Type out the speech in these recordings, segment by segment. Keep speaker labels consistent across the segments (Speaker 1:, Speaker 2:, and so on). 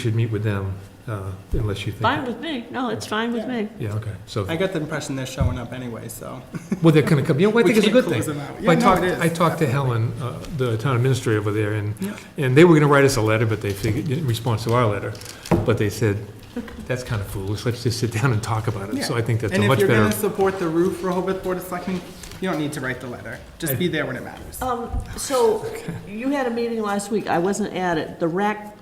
Speaker 1: should meet with them uh, unless you think.
Speaker 2: Fine with me, no, it's fine with me.
Speaker 1: Yeah, okay, so,
Speaker 3: I got the impression they're showing up anyway, so.
Speaker 1: well, they're gonna come, you know, what I
Speaker 3: we
Speaker 1: think it's a
Speaker 3: can't
Speaker 1: good
Speaker 3: close
Speaker 1: thing.
Speaker 3: them out.
Speaker 1: I
Speaker 3: Yeah, no,
Speaker 1: talked,
Speaker 3: it is.
Speaker 1: I talked to Helen, uh, the town administrator over there, and,
Speaker 3: Yeah.
Speaker 1: and they were gonna write us a letter, but they figured, in response to our letter, but they said, that's kind of foolish, let's just sit down and talk about it, so I think that's a
Speaker 3: And if
Speaker 1: much
Speaker 3: you're
Speaker 1: better.
Speaker 3: gonna support the roof Rehoboth Board of Selectmen, you don't need to write the letter. Just be there when it matters.
Speaker 2: Um, so, you had a meeting last week, I wasn't at it, the rack,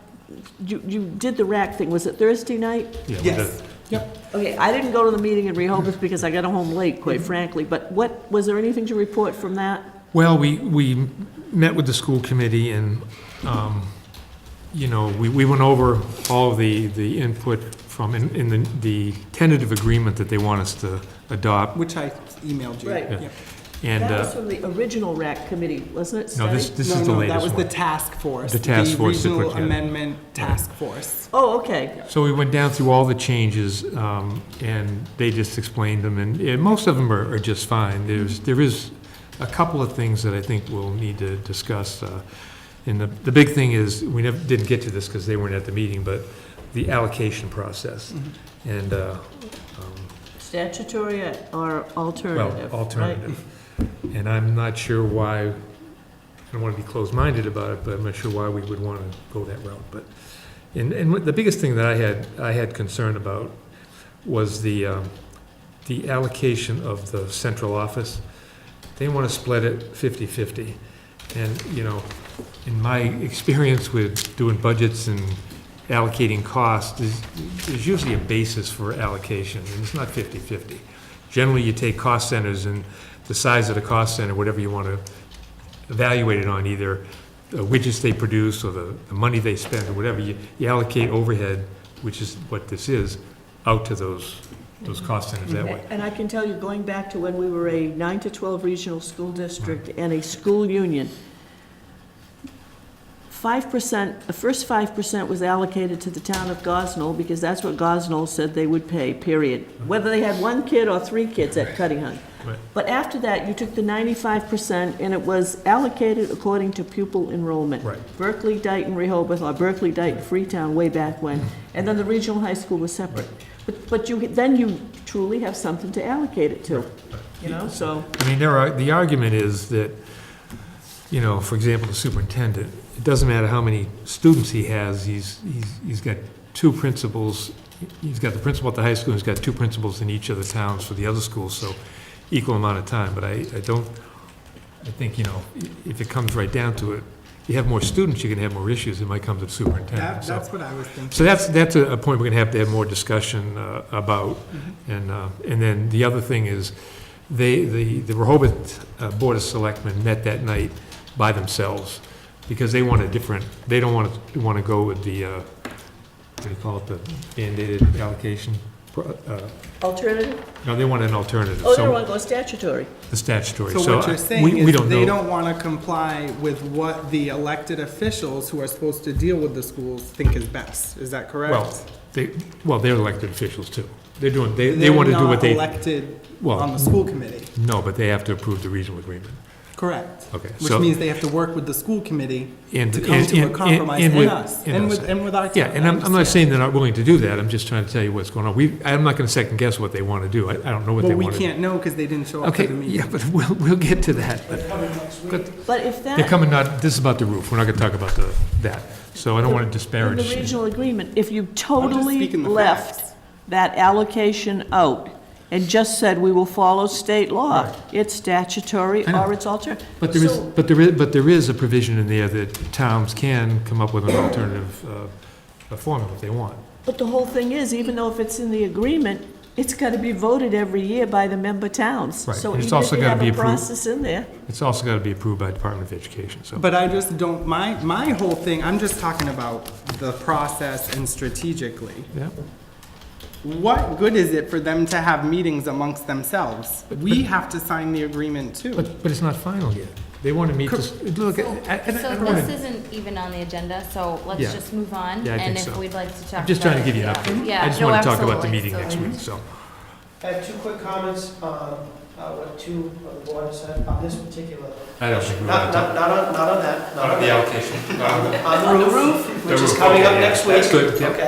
Speaker 2: you, you did the rack thing, was it Thursday night?
Speaker 1: yeah, with
Speaker 3: Yes,
Speaker 1: the-
Speaker 3: yep.
Speaker 2: Okay, I didn't go to the meeting in Rehoboth because I got home late,
Speaker 1: Mm-hmm.
Speaker 2: quite frankly, but what, was there anything to report from that?
Speaker 1: Well, we, we met with the school committee and, um, you know, we, we went over all the, the input from, in, in the, the tentative agreement that they want us to adopt,
Speaker 3: Which I emailed you.
Speaker 2: Right.
Speaker 1: Yeah.
Speaker 3: Yep.
Speaker 1: and,
Speaker 2: That was
Speaker 1: uh,
Speaker 2: from the original rack committee, wasn't it,
Speaker 1: no, this,
Speaker 2: Stein?
Speaker 1: this
Speaker 3: No,
Speaker 1: is the
Speaker 3: no, That was
Speaker 1: latest
Speaker 3: the
Speaker 1: one.
Speaker 3: task force.
Speaker 1: The task force that put
Speaker 3: Regional
Speaker 1: together.
Speaker 3: Amendment Task Force.
Speaker 2: Oh, okay,
Speaker 1: So we went down through all the changes, um, and they just explained them, and, and most of them are, are just fine. There's, there is a couple of things that I think we'll need to discuss, uh, and the, the big thing is, we never, didn't get to this because they weren't at the meeting, but the allocation process.
Speaker 3: Mm-hmm.
Speaker 1: And, uh, um,
Speaker 2: statutory or
Speaker 1: well,
Speaker 2: alternative, right?
Speaker 1: alternative. And I'm not sure why, I don't want to be closed-minded about it, but I'm not sure why we would want to go that route, but, and, and what- the biggest thing that I had, I had concern about was the, um, the allocation of the central office. They want to split it 50-50, and, you know, in my experience with doing budgets and allocating costs, there's, there's usually a basis for allocation, and it's not 50-50. Generally, you take cost centers and the size of the cost center, whatever you want to evaluate it on, either the widgets they produce or the, the money they spend or whatever, you, you allocate overhead, which is what this is, out to those, those cost centers that way.
Speaker 2: And I can tell you, going back to when we were a nine to 12 regional school district and a school union, 5%, the first 5% was allocated to the town of Gosnell, because that's what Gosnell said they would pay, period. Whether they had one kid or three kids at Cuttingham.
Speaker 1: Right.
Speaker 2: But after that, you took the 95%, and it was allocated according to pupil enrollment.
Speaker 1: Right.
Speaker 2: Berkeley, Dayton, Rehoboth, or Berkeley, Dayton, Freetown, way back when. And then the regional high school was separate. But, but you, then you truly have something to allocate it to, you know, so.
Speaker 1: I mean, there are, the argument is that, you know, for example, the superintendent, it doesn't matter how many students he has, he's, he's, he's got two principals, he's got the principal at the high school, he's got two principals in each of the towns for the other schools, so equal amount of time, but I, I don't, I think, you know, if it comes right down to it, you have more students, you're gonna have more issues, it might come to the
Speaker 3: That,
Speaker 1: superintendent, so.
Speaker 3: that's what I was thinking.
Speaker 1: So that's, that's a a point we're going to have to have more discussion uh, about.
Speaker 2: Mm-hmm.
Speaker 1: And, uh, and then the other thing is, they, the the Rehoboth uh, Board of Selectmen met that night by themselves because they want a different, they don't want to, want to go with the, uh, what do you call it, the mandated allocation? pro- uh,
Speaker 2: Alternative?
Speaker 1: No, they want an alternative,
Speaker 2: Oh, they don't
Speaker 1: so
Speaker 2: want to go statutory.
Speaker 1: the statutory.
Speaker 3: So what
Speaker 1: I-
Speaker 3: you're
Speaker 1: we-
Speaker 3: saying
Speaker 1: we
Speaker 3: is
Speaker 1: don't
Speaker 3: they
Speaker 1: know.
Speaker 3: don't want to comply with what the elected officials who are supposed to deal with the schools think is best. Is that correct?
Speaker 1: Well, they, well, they're elected officials too. They're doing, they, they want to do what they,
Speaker 3: They're not elected
Speaker 1: Well-
Speaker 3: on the school committee.
Speaker 1: no, but they have to approve the regional agreement.
Speaker 3: Correct.
Speaker 1: Okay,
Speaker 3: Which
Speaker 1: so-
Speaker 3: means they have to work with the school committee
Speaker 1: And-
Speaker 3: to come
Speaker 1: and-
Speaker 3: to
Speaker 1: and-
Speaker 3: a compromise
Speaker 1: and
Speaker 3: and
Speaker 1: with-
Speaker 3: us,
Speaker 1: and
Speaker 3: and
Speaker 1: us.
Speaker 3: with, and with our town.
Speaker 1: Yeah, and I'm, I'm
Speaker 3: I
Speaker 1: not
Speaker 3: understand.
Speaker 1: saying they're not willing to do that, I'm just trying to tell you what's going on. We, I'm not gonna second guess what they want to do, I, I don't know what they
Speaker 3: Well, we
Speaker 1: want to do.
Speaker 3: can't know because they didn't show up to
Speaker 1: Okay,
Speaker 3: the
Speaker 1: yeah,
Speaker 3: meeting.
Speaker 1: but we'll, we'll get to that, but, but
Speaker 2: But if that.
Speaker 1: they're coming not, this is about the roof, we're not gonna talk about the, that, so I don't want to
Speaker 2: In
Speaker 1: disparage.
Speaker 2: the regional agreement, if you totally
Speaker 3: speaking the
Speaker 2: left
Speaker 3: facts.
Speaker 2: that allocation out and just said, we will follow state law, it's statutory
Speaker 1: I know.
Speaker 2: or it's alternative.
Speaker 1: But there is, but there is, but there is a provision in there that towns can come up with an alternative, uh, uh, formula if they want.
Speaker 2: But the whole thing is, even though if it's in the agreement, it's got to be voted every year by the member towns.
Speaker 1: Right,
Speaker 2: So
Speaker 1: and it's
Speaker 2: even if
Speaker 1: also
Speaker 2: you
Speaker 1: gotta
Speaker 2: have
Speaker 1: be
Speaker 2: a
Speaker 1: approved.
Speaker 2: process in there,
Speaker 1: It's also gotta be approved by Department of Education, so.
Speaker 3: But I just don't, my, my whole thing, I'm just talking about the process and strategically.
Speaker 1: Yeah,
Speaker 3: What good is it for them to have meetings amongst themselves? We have to sign the agreement too.
Speaker 1: but, but it's not final yet, they want to meet, this- look, I, I I
Speaker 4: So
Speaker 1: don't want
Speaker 4: this
Speaker 1: to.
Speaker 4: isn't even on the agenda, so
Speaker 1: Yeah.
Speaker 4: let's just move on.
Speaker 1: Yeah, I think
Speaker 4: And
Speaker 1: so.
Speaker 4: if we'd like to talk about
Speaker 1: I'm just trying to give you an
Speaker 4: it, yeah.
Speaker 1: update.
Speaker 4: Yeah,
Speaker 1: I just
Speaker 4: no,
Speaker 1: want to talk about the
Speaker 4: absolutely,
Speaker 1: meeting next
Speaker 4: absolutely.
Speaker 1: week, so.
Speaker 5: I have two quick comments. Um, uh, what two of the board have said on this particular,
Speaker 6: I don't think we
Speaker 5: not,
Speaker 6: want to
Speaker 5: not, not on, not on that,
Speaker 6: talk
Speaker 5: not
Speaker 6: about
Speaker 5: on
Speaker 6: the
Speaker 5: that.
Speaker 6: allocation. Um,
Speaker 5: On the roof,
Speaker 6: The
Speaker 5: which is
Speaker 6: roof,
Speaker 5: coming up
Speaker 6: okay, yeah,
Speaker 5: next week.
Speaker 6: that's good, yeah.
Speaker 5: Okay,